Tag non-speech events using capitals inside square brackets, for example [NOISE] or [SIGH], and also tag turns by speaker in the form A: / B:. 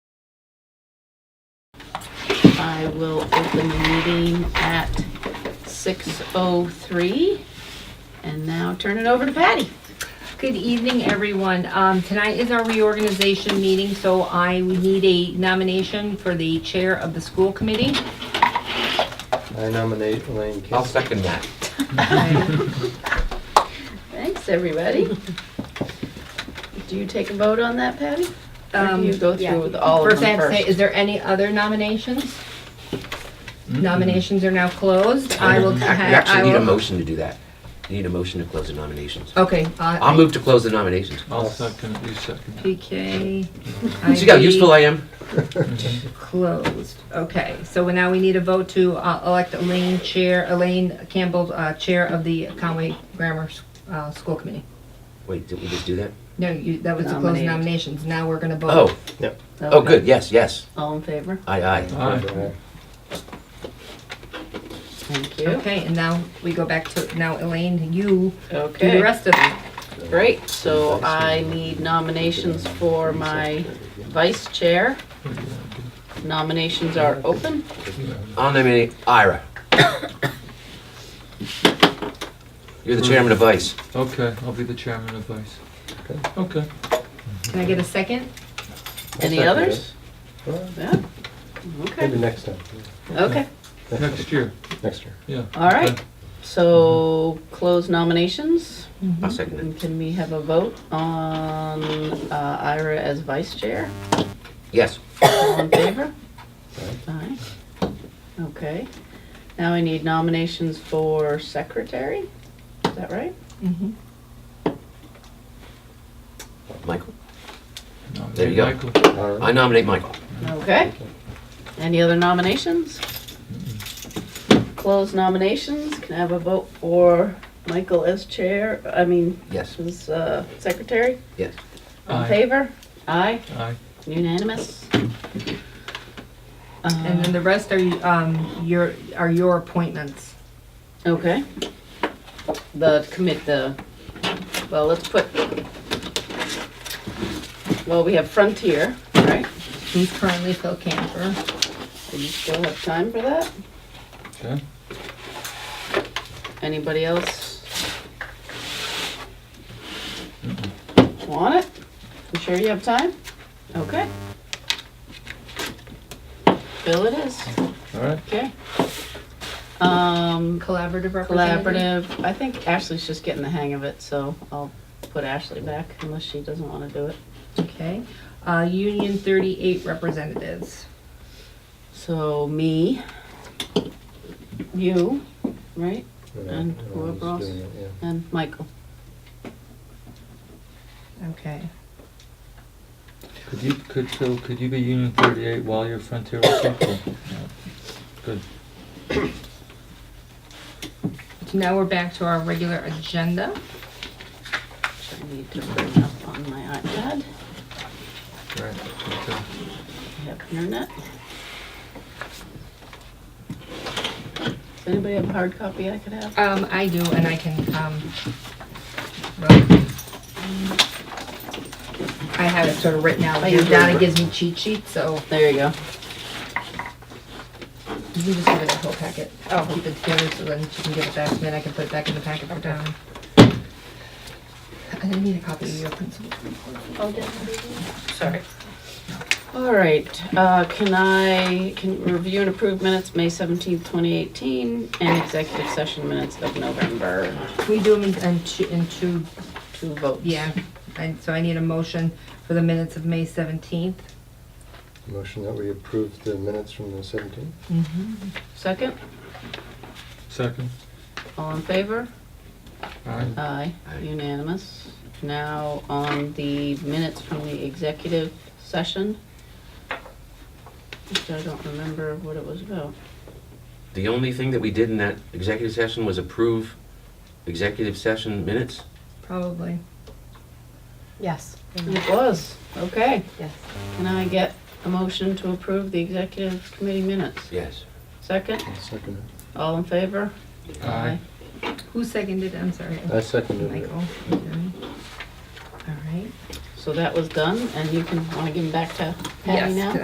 A: I will open the meeting at 6:03. And now turn it over to
B: [LAUGHS]
A: Patty.
B: Good evening, everyone. Um, Tonight is our reorganization meeting, so I need a nomination for the chair of the school committee.
C: I nominate Elaine
D: I'll
C: Kinsey.
D: second that.
A: Thanks, everybody. Do you take a vote on that, Patty? Or
B: Um,
A: do you go
B: yeah.
A: through with all of
B: First, I
A: them
B: have to say,
A: first?
B: is there any other nominations? Nominations are now closed. I will.
D: You
B: ha- I
D: actually need a
B: will-
D: motion to do that. You need a motion to close the nominations.
B: Okay. uh,
D: I'll move to close the nominations.
E: I'll second, you second.
D: [LAUGHS]
B: PK.
D: See how useful I am?
B: Closed. Okay, so now we need a vote to uh, elect Elaine Chair, Elaine Campbell, uh, Chair of the Conway Grammar uh, School Committee.
D: Wait, did we just do that?
B: No, you, that was to close
A: Nominate.
B: nominations. Now we're gonna vote.
D: Oh, oh, good, yes, yes.
A: All in favor?
D: Aye, aye.
E: Aye.
A: Thank you.
B: Okay, and now we go back to, now Elaine, you do the
A: Okay,
B: rest of it.
A: great. So I need nominations for my vice chair. Nominations are open.
D: I'll nominate Ira. You're the chairman of vice.
E: Okay, I'll be the chairman of vice. Okay.
B: Can I get a second?
A: Any
C: second
A: others?
C: Well,
A: Yeah.
C: Maybe
A: Okay,
C: next time,
A: okay,
E: Next year,
C: next year.
E: yeah.
A: all right. So close nominations.
D: I'll second
A: And
D: it.
A: can we have a vote on uh, Ira as vice chair?
D: Yes.
A: All in favor? Aye. Okay. Now I need nominations for secretary. Is that right?
B: Mhm.
D: Michael?
E: No,
D: There you
E: Michael. go.
C: All
D: I
C: right.
D: nominate Michael.
A: Okay. Any other nominations? Closed nominations. Can I have a vote for Michael as chair? I mean,
D: Yes,
A: as uh, secretary?
D: yes.
A: All in
E: Aye,
A: favor? Aye.
E: aye.
A: Unanimous?
B: And then the rest are, um, your, are your appointments.
A: Uh, Okay. The commit, the, well, let's put, well, we have Frontier, right?
B: He's currently Phil Camper.
A: Do you still have time for that?
E: Okay.
A: Anybody else? Want it? You sure you have time? Okay. Bill it is,
E: All right,
A: okay. Um,
B: Collaborative representative.
A: Collaborative, I think Ashley's just getting the hang of it, so I'll put Ashley back unless she doesn't wanna do it.
B: Okay. Uh, Union thirty-eight representatives.
A: So me, you, right, And
C: Yeah,
A: whoever
C: I'm just
A: else.
C: doing it,
A: and Michael.
B: Okay.
E: could you, could, Phil, could you be Union thirty-eight while you're Frontier Circle? Good.
B: So now we're back to our regular agenda.
A: Which I need to bring up on my iPad.
E: Right. okay.
A: I have internet. Does anybody have a hard copy I could have?
B: Um, I do, and I can, um, well, I have it sort of written out.
A: I usually-
B: Donna gives me cheat sheets, so.
A: There you go.
B: You can just give it the whole packet. I'll keep it together so then she can give it back, and then I can put it back in the packet for Donna. I need a copy of your principal.
A: Sorry. All right, uh, can I, can review and approve minutes, May seventeenth, twenty eighteen, and executive session minutes of November,
B: We do them in, in two, in two,
A: two votes.
B: yeah, and so I need a motion for the minutes of May seventeenth.
C: yeah. Motion that we approve the minutes from the 17th.
A: Second,
E: Second,
A: all in favor?
E: aye.
A: Aye,
D: Aye.
A: unanimous. Now on the minutes from the executive session, which I don't remember what it was about.
D: The only thing that we did in that executive session was approve executive session minutes?
B: Probably.
F: Yes,
A: It was, okay.
F: yes.
A: Can I get a motion to approve the executive committee minutes?
D: Yes.
A: Second,
C: I'll second it.
A: all in favor?
E: Aye.
B: Who seconded? I'm sorry.
C: I seconded it.
B: Michael. okay. All right.
A: So that was done, and you can, wanna give them back to Patty
B: Yes,
A: now?